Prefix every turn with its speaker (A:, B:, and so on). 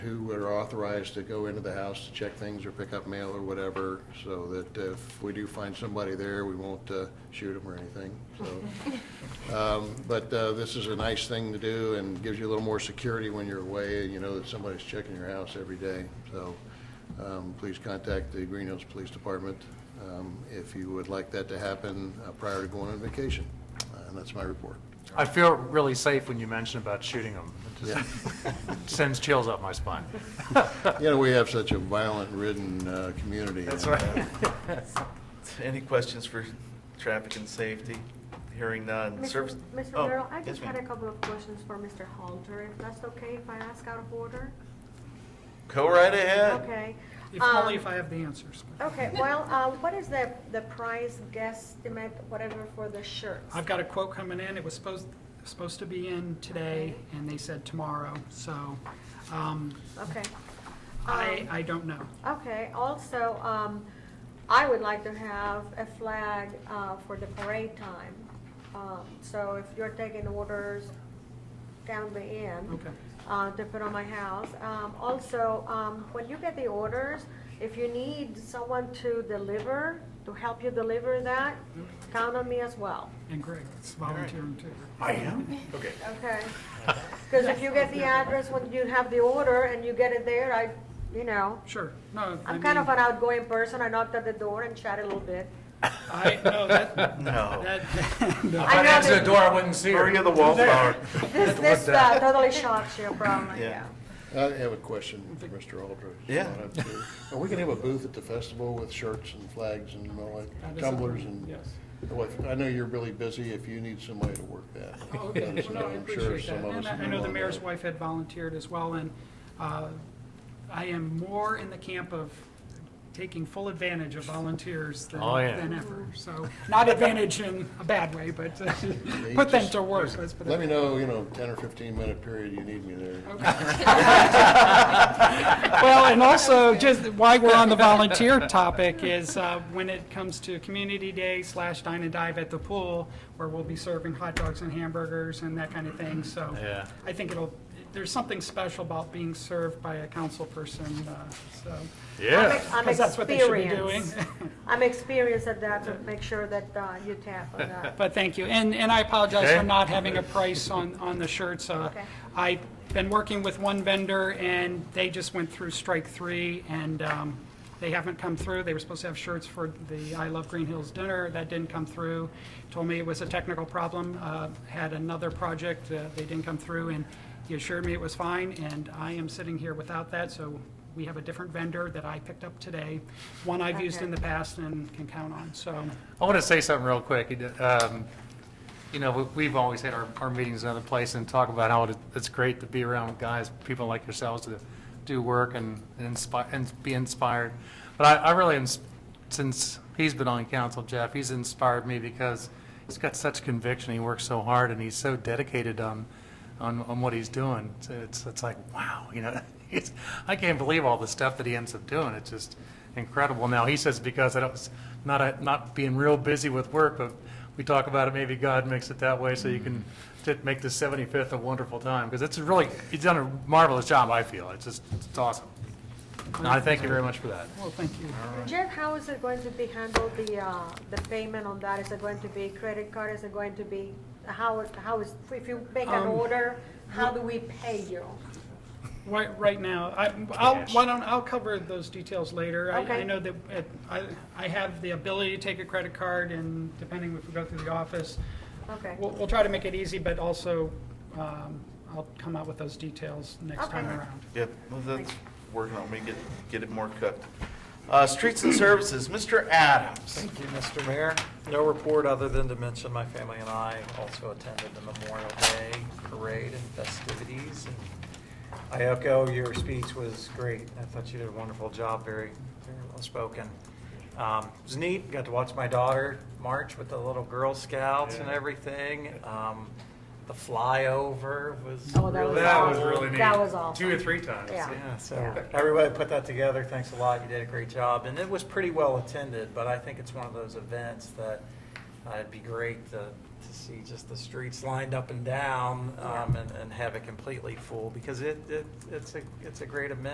A: are authorized to go into the house to check things or pick up mail or whatever, so that if we do find somebody there, we won't uh, shoot them or anything, so. Um, But uh, this is a nice thing to do and gives you a little more security when you're away, and you know that somebody's checking your house every day. So um, please contact the Green Hills Police Department um, if you would like that to happen uh, prior to going on vacation. Uh, And that's my report.
B: I feel really safe when you mention about shooting them. It
A: Yeah.
B: just sends chills up my spine.
A: You know, we have such a violent-ridden uh, community.
B: That's
A: and, uh,
B: right.
C: Any questions for traffic and safety? Hearing none. Service-
D: Mr. Mr.
C: Oh,
D: Merrill, I
C: yes,
D: just had a
C: ma'am.
D: couple of questions for Mr. Halter, if that's okay, if I ask out of order?
C: Go right ahead.
D: Okay.
E: If only
D: Um,
E: if I have the answers.
D: Okay, well, uh, what is the, the price guesstimate, whatever, for the shirts?
E: I've got a quote coming in, it was supposed, supposed to be in today, and they said tomorrow, so, um,
D: Okay.
E: I,
D: Um,
E: I don't know.
D: Okay, also, um, I would like to have a flag, uh, for the parade time. Um, so if you're taking orders down the end.
E: Okay.
D: Uh, to put on my house. Um, also, um, when you get the orders, if you need someone to deliver, to help you deliver that, count on me as well,
E: And Greg, it's volunteering too.
C: I am? Okay.
D: okay? Cause if you get the address when you have the order and you get it there, I, you know.
E: Sure, no, I
D: I'm kind of
E: mean,
D: an outgoing person. I knocked at the door and chat a little bit.
E: I, no, that,
C: No.
E: that, no.
D: I
B: I'd
D: know
B: answer
D: that-
B: the door, I wouldn't see her.
C: Hurry of the wallflower.
D: This, this uh, totally shocks you, probably,
C: Yeah.
D: yeah.
A: I have a question for Mr. Aldridge.
C: Yeah.
A: Are we gonna have a booth at the festival with shirts and flags and all
E: That
A: that,
E: is
A: tumblers
E: something-
A: and?
E: yes.
A: Well, I know you're really busy, if you need somebody to work that.
E: Oh, okay.
A: that is-
E: Well, no, I
A: I'm sure
E: appreciate
A: some
E: that.
A: of us
E: And I I
A: will
E: know the
A: want
E: mayor's
A: that.
E: wife had volunteered as well, and uh, I am more in the camp of taking full advantage of volunteers than
B: Oh, yeah.
E: than ever. So, not advantage in a bad way, but uh, put them
A: just-
E: to work, let's put it
A: Let me know, you know, ten or fifteen minute period you need me there.
E: Well, and also, just why we're on the volunteer topic is uh, when it comes to Community Day slash Dine and Dive at the pool, where we'll be serving hot dogs and hamburgers and that kind of thing, so.
B: Yeah.
E: I think it'll, there's something special about being served by a council person, uh, so.
D: I'm
B: Yeah.
D: ex- I'm
E: 'cause that's what they should be
D: experienced.
E: doing.
D: I'm experienced at that, to make sure that uh, you tap on that.
E: But thank you, and, and I apologize for
B: Okay.
E: not having a price on, on the shirts. Uh,
D: Okay.
E: I've been working with one vendor, and they just went through strike three, and um, they haven't come through. They were supposed to have shirts for the I Love Green Hills dinner, that didn't come through. Told me it was a technical problem, uh, had another project, uh, they didn't come through, and he assured me it was fine, and I am sitting here without that, so we have a different vendor that I picked up today, one I've used in
D: Okay.
E: the past and can count on, so.
B: I want to say something real quick. Um, You know, we- we've always had our, our meetings in other places and talk about how it- it's great to be around guys, people like yourselves to do work and and inspire, and be inspired. But I, I really, ins- since he's been on council, Jeff, he's inspired me because he's got such conviction, he works so hard, and he's so dedicated um, on, on, on what he's doing. So It's, it's like, wow, you know, it's, I can't believe all the stuff that he ends up doing. It's just incredible. Now, he says because I don't, not, a- not being real busy with work, but we talk about it, maybe God makes it that way so you can to make the 75th a wonderful time. Because it's really, he's done a marvelous job, I feel. It's just, it's awesome. And I thank you very much for that.
E: Well, thank you.
D: Jeff, how is it going to be handled, the, uh, the payment on that? Is it going to be credit card? Is it going to be, how, is- how is, if you make
E: Um,
D: an order, how do we pay you?
E: Right, right now, I, I'll,
B: Cash.
E: why don't, I'll cover those details later. I, I
D: Okay.
E: know that, it- I, I have the ability to take a credit card and depending if we go through the office.
D: Okay.
E: We'll, we'll try to make it easy, but also, um, I'll come out with those details next time
D: Okay.
E: around.
C: Yep, well, that's working on me, get, get it more cooked. Uh, Streets and Services, Mr. Adams.
F: Thank you, Mr. Mayor. No report other than to mention my family and I also attended the Memorial Day parade and festivities. And I echo, your speech was great. I thought you did a wonderful job, very, very well spoken. Um, It was neat, got to watch my daughter march with the little Girl Scouts and everything. Um, The flyover was
D: Oh, that
F: really.
D: was That was awesome. really neat. That was awesome.
B: Two or three times.
D: Yeah.
F: Yeah,
D: Yeah.
F: so everybody put that together, thanks a lot, you did a great job, and it was pretty well attended, but I think it's one of those events that uh, it'd be great to, to see just the streets lined up and down, um, and, and have it completely full, because it, it, it's a, it's a great event.